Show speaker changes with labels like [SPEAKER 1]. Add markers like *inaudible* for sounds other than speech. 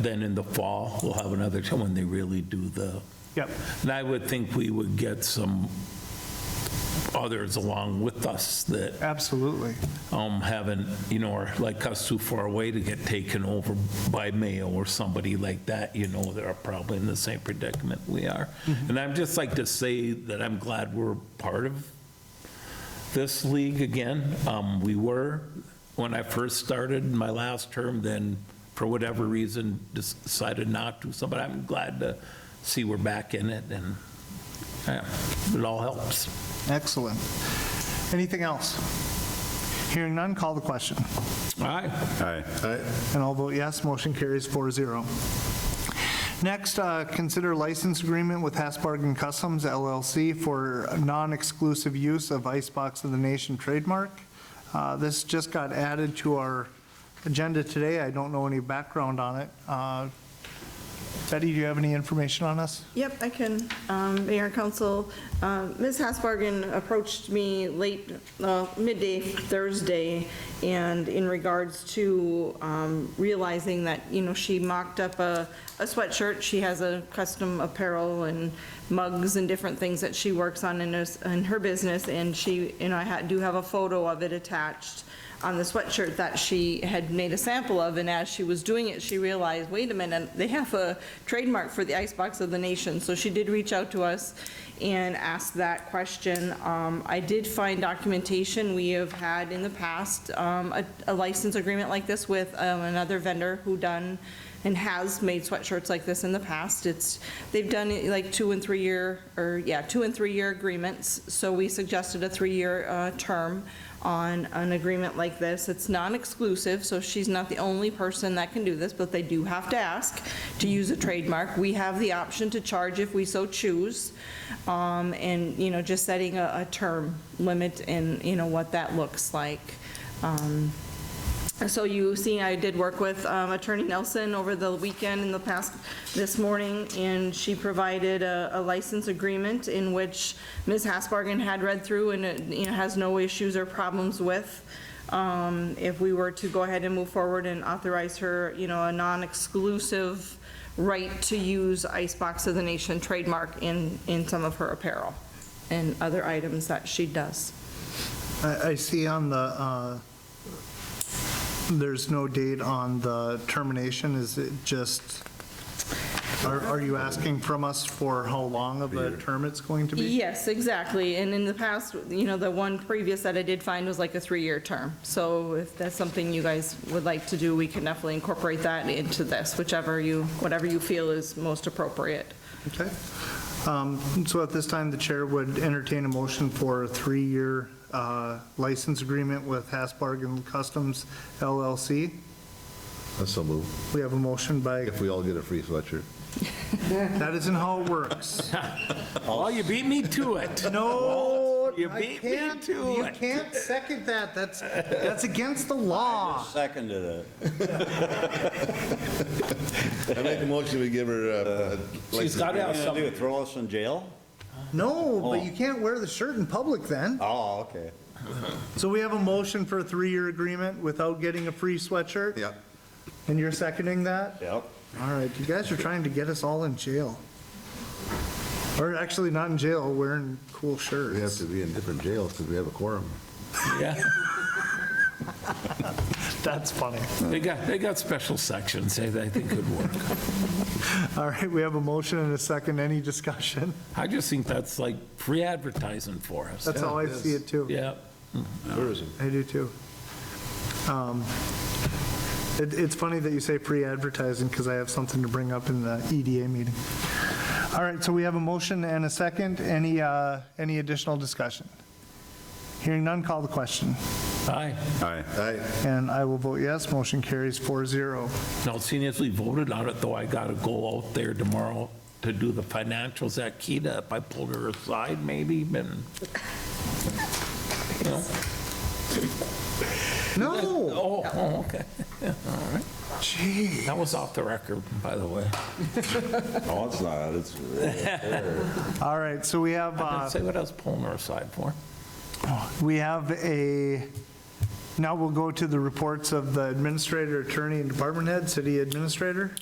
[SPEAKER 1] Then in the fall, we'll have another, time when they really do the,
[SPEAKER 2] Yep,
[SPEAKER 1] and I would think we would get some others along with us that
[SPEAKER 2] absolutely.
[SPEAKER 1] um, haven't, you know, are like us too far away to get taken over by Mayo or somebody like that, you know, that are probably in the same predicament we are. And I'd just like to say that I'm glad we're part of this league again. Um, We were, when I first started in my last term, then for whatever reason decided not to. So, but I'm glad to see we're back in it and yeah, it all helps.
[SPEAKER 2] Excellent. Anything else? Hearing none, call the question.
[SPEAKER 1] All right.
[SPEAKER 3] Aye.
[SPEAKER 2] And all vote yes, motion carries 4-0. Next, uh, consider license agreement with Hasbargen Customs LLC for non-exclusive use of Icebox of the Nation trademark. Uh, This just got added to our agenda today. I don't know any background on it. Uh, Betty, do you have any information on this?
[SPEAKER 4] Yep, I can. Um, Mayor and council, um, Ms. Hasbargen approached me late, uh, midday Thursday, and in regards to um, realizing that, you know, she mocked up a a sweatshirt. She has a custom apparel and mugs and different things that she works on in this- in her business, and she, you know, I ha- do have a photo of it attached on the sweatshirt that she had made a sample of, and as she was doing it, she realized, wait a minute, they have a trademark for the Icebox of the Nation. So she did reach out to us and ask that question. Um, I did find documentation, we have had in the past, um, a, a license agreement like this with, um, another vendor who done and has made sweatshirts like this in the past. It's, they've done it like two and three-year, or, yeah, two and three-year agreements, so we suggested a three-year uh, term on an agreement like this. It's non-exclusive, so she's not the only person that can do this, but they do have to ask to use a trademark. We have the option to charge if we so choose, um, and, you know, just setting a, a term limit and, you know, what that looks like. Um, so you see, I did work with um, Attorney Nelson over the weekend in the past, this morning, and she provided a a license agreement in which Ms. Hasbargen had read through and, it, you know, has no issues or problems with. Um, If we were to go ahead and move forward and authorize her, you know, a non-exclusive right to use Icebox of the Nation trademark in, in some of her apparel and other items that she does.
[SPEAKER 2] I I see on the, uh, there's no date on the termination, is it just, are are you asking from us for how long of a term it's going to be?
[SPEAKER 4] Yes, exactly. And in the past, you know, the one previous that I did find was like a three-year term. So if that's something you guys would like to do, we can definitely incorporate that into this, whichever you, whatever you feel is most appropriate.
[SPEAKER 2] Okay. Um, So at this time, the chair would entertain a motion for a three-year uh, license agreement with Hasbargen Customs LLC.
[SPEAKER 3] That's so move.
[SPEAKER 2] We have a motion by,
[SPEAKER 3] If we all get a free sweatshirt.
[SPEAKER 2] that isn't how it works.
[SPEAKER 1] Well, you beat me to it.
[SPEAKER 2] No,
[SPEAKER 1] You
[SPEAKER 2] I
[SPEAKER 1] beat me
[SPEAKER 2] can't,
[SPEAKER 1] to
[SPEAKER 2] you
[SPEAKER 1] it.
[SPEAKER 2] can't second that, that's, that's against the law.
[SPEAKER 5] Seconded it.
[SPEAKER 3] I make a motion, we give her uh, a
[SPEAKER 1] She's
[SPEAKER 3] license.
[SPEAKER 1] got to
[SPEAKER 5] What
[SPEAKER 1] have
[SPEAKER 5] are you gonna
[SPEAKER 1] something.
[SPEAKER 5] do, throw us in jail?
[SPEAKER 2] No, but you can't wear the shirt in public then.
[SPEAKER 5] Oh, okay.
[SPEAKER 2] So we have a motion for a three-year agreement without getting a free sweatshirt,
[SPEAKER 3] Yeah.
[SPEAKER 2] and you're seconding that?
[SPEAKER 5] Yep.
[SPEAKER 2] All right, you guys are trying to get us all in jail. Or actually, not in jail, wearing cool
[SPEAKER 3] We have
[SPEAKER 2] shirts.
[SPEAKER 3] to be in different jails because we have a quorum.
[SPEAKER 1] Yeah.
[SPEAKER 2] That's funny.
[SPEAKER 1] They got, they got special sections, hey, that I think could work.
[SPEAKER 2] All right, we have a motion and a second, any discussion?
[SPEAKER 1] I just think that's like free advertising for us.
[SPEAKER 2] That's how I see it too.
[SPEAKER 1] Yeah,
[SPEAKER 3] Tourism.
[SPEAKER 2] I do too. Um, it- It's funny that you say pre-advertising, because I have something to bring up in the EDA meeting. All right, so we have a motion and a second. Any, uh, any additional discussion? Hearing none, call the question.
[SPEAKER 1] aye.
[SPEAKER 3] Aye. Aye.
[SPEAKER 2] And I will vote yes, motion carries 4-0.
[SPEAKER 1] Now, seeing as we voted on it, though, I gotta go out there tomorrow to do the financials at Kita. If I pulled her aside, maybe, and, you know,
[SPEAKER 2] No!
[SPEAKER 1] oh, oh, okay.
[SPEAKER 2] Gee.
[SPEAKER 1] That was off the record, by the way.
[SPEAKER 5] No,
[SPEAKER 3] Oh,
[SPEAKER 5] it's not,
[SPEAKER 3] *laughs*
[SPEAKER 5] it's.
[SPEAKER 2] All right, so we have,
[SPEAKER 1] I
[SPEAKER 2] uh,
[SPEAKER 1] didn't say what I was pulling her aside for.
[SPEAKER 2] we have a, now we'll go to the reports of the administrator, attorney, and department head, city administrator.